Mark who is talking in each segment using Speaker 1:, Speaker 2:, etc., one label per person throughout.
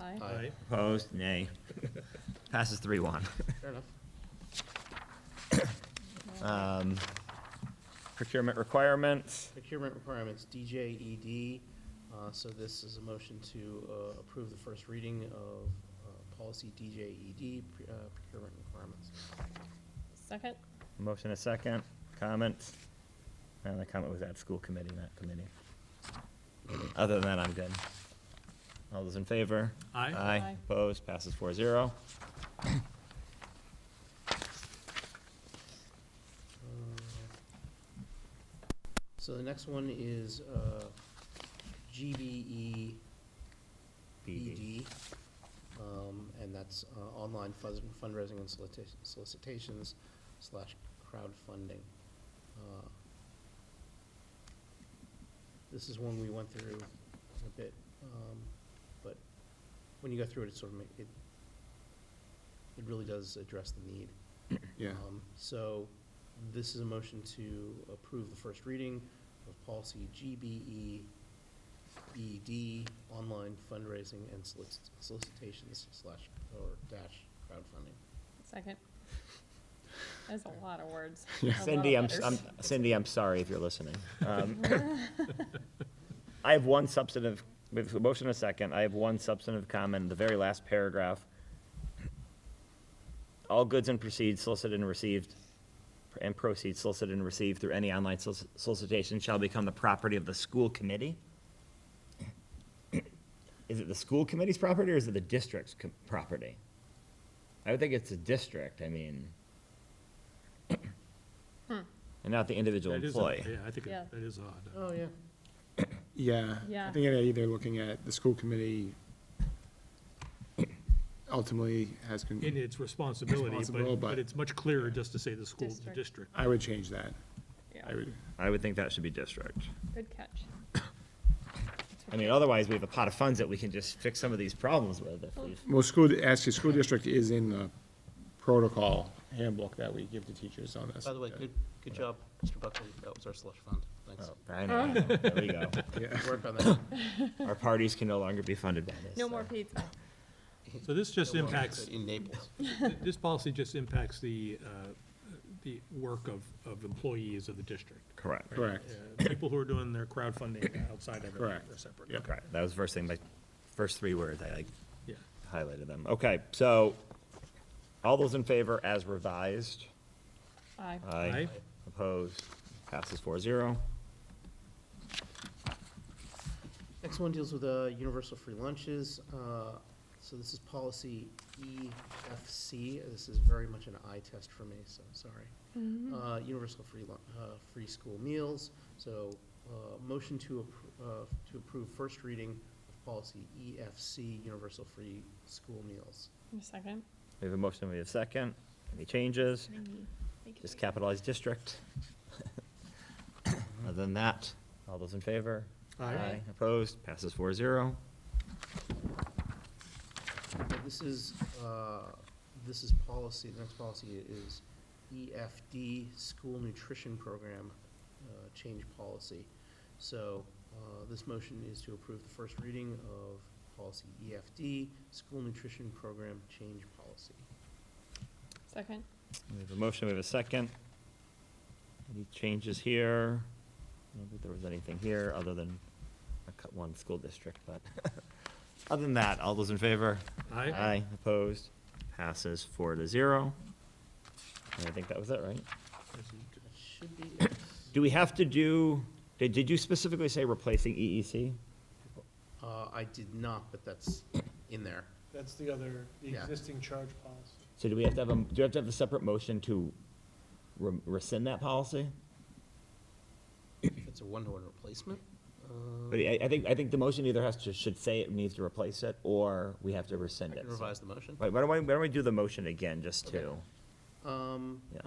Speaker 1: Aye.
Speaker 2: Aye.
Speaker 3: Opposed? Nay. Passes three one.
Speaker 2: Fair enough.
Speaker 3: Procurement requirements.
Speaker 2: Procurement requirements, DJED. uh, So this is a motion to uh, approve the first reading of uh, policy DJED, pre- uh, procurement requirements.
Speaker 1: Second?
Speaker 3: Motion a second. Comments? And the comment was at school committee, not committee. Other than that, I'm good. All those in favor?
Speaker 4: Aye.
Speaker 3: Aye.
Speaker 1: Aye.
Speaker 3: Opposed? Passes four zero.
Speaker 2: Uh, So the next one is uh, E GBE BD, um, and that's uh, online fuzz- fundraising and solicita- solicitations slash crowdfunding. Uh, This is one we went through a bit, um, but when you go through it, it sort of ma- it, it really does address the need.
Speaker 5: Yeah.
Speaker 2: Um, So this is a motion to approve the first reading of policy E GBE BD, E online fundraising and solic- solicitations slash or dash crowdfunding.
Speaker 1: Second. That's a lot of words. A
Speaker 5: Yeah.
Speaker 1: lot of
Speaker 3: Cindy, I'm,
Speaker 1: letters.
Speaker 3: I'm, Cindy, I'm sorry if you're listening. Um, I have one substantive, with a motion and a second, I have one substantive comment, in the very last paragraph. All goods and proceeds solicited and received, and proceeds solicited and received through any online solic- solicitation shall become the property of the school committee? Is it the school committee's property or is it the district's co- property? I would think it's the district, I mean.
Speaker 1: Hmm.
Speaker 3: And not the individual
Speaker 4: That is odd.
Speaker 3: employee.
Speaker 4: Yeah, I think
Speaker 1: Yeah.
Speaker 4: it- that is odd.
Speaker 2: Oh, yeah.
Speaker 5: Yeah.
Speaker 1: Yeah.
Speaker 5: I think they're either looking at the school committee ultimately has, con-
Speaker 4: In its responsibility,
Speaker 5: Responsible,
Speaker 4: but,
Speaker 5: but-
Speaker 4: but it's much clearer just to say the school, the
Speaker 1: District.
Speaker 4: district.
Speaker 5: I would change that. I
Speaker 1: Yeah,
Speaker 5: would,
Speaker 3: I would think that should be district.
Speaker 1: good catch.
Speaker 3: I mean, otherwise, we have a pot of funds that we can just fix some of these problems with. if we-
Speaker 5: well, school, actually, school district is in the protocol handbook that we give to teachers on this.
Speaker 2: By the way, good, good job, Mr. Buckley. That was our slush fund. Thanks.
Speaker 3: Oh, I know, there we go.
Speaker 5: Yeah.
Speaker 2: Work on that.
Speaker 3: Our parties can no longer be funded by this.
Speaker 1: No
Speaker 3: so.
Speaker 1: more pizza.
Speaker 4: So this just
Speaker 2: Well,
Speaker 4: impacts,
Speaker 2: In Naples.
Speaker 4: this policy just impacts the, uh, the work of, of employees of the district.
Speaker 3: Correct.
Speaker 5: Correct.
Speaker 4: Uh, People who are doing their crowdfunding outside of it are
Speaker 5: Correct.
Speaker 4: separate.
Speaker 5: Yep.
Speaker 3: Correct. That was the first thing, my first three words, I like
Speaker 4: Yeah.
Speaker 3: highlighted them. Okay, so all those in favor as revised?
Speaker 1: Aye.
Speaker 3: Aye.
Speaker 4: Aye.
Speaker 3: Opposed? Passes four zero.
Speaker 2: Next one deals with uh, universal free lunches. Uh, So this is policy EFC. This is very much an eye test for me, so I'm sorry. Uh, Universal free, lun- uh, free school meals. So uh, motion to, appro- uh, to approve first reading of policy EFC, universal free school meals.
Speaker 1: Second.
Speaker 3: We have a motion, we have a second. Any changes? Just capitalize district. Other than that, all those in favor?
Speaker 1: Aye.
Speaker 3: Opposed? Passes four zero.
Speaker 2: This is, uh, this is policy, the next policy is EFD, School Nutrition Program uh, Change Policy. So uh, this motion is to approve the first reading of policy EFD, School Nutrition Program Change Policy.
Speaker 1: Second.
Speaker 3: We have a motion, we have a second. Any changes here? I don't think there was anything here, other than a cut one school district, but, other than that, all those in favor?
Speaker 4: Aye.
Speaker 3: Aye, opposed, passes four to zero. And I think that was it, right?
Speaker 2: That should be,
Speaker 3: Do we have to do, did, did you specifically say replacing E EEC?
Speaker 2: uh, I did not, but that's in there.
Speaker 6: That's the other, the
Speaker 2: Yeah.
Speaker 6: existing charge policy.
Speaker 3: So do we have to have a, do we have to have a separate motion to re- rescind that policy?
Speaker 2: If it's a one-to-one replacement,
Speaker 3: But I, I think, I think the motion either has to, should say it needs to replace it, or we have to
Speaker 2: I
Speaker 3: rescind it.
Speaker 2: can
Speaker 3: so-
Speaker 2: revise the motion.
Speaker 3: Wait, why don't, we- why don't we do the motion again, just
Speaker 2: Okay.
Speaker 3: to,
Speaker 2: Um,
Speaker 3: yeah.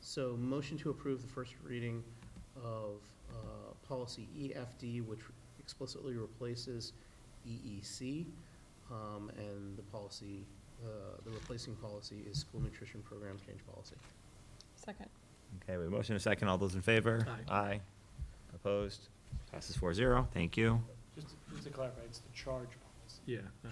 Speaker 2: So motion to approve the first reading of uh, policy EFD, which explicitly replaces EEC. um, And the policy, uh, the replacing policy is school nutrition program change policy.
Speaker 1: Second.
Speaker 3: Okay, we have a motion and a second, all those in favor?
Speaker 4: Aye.
Speaker 3: Aye. Opposed? Passes four zero, thank you.
Speaker 6: Just, just to clarify, it's the charge policy.
Speaker 4: Yeah.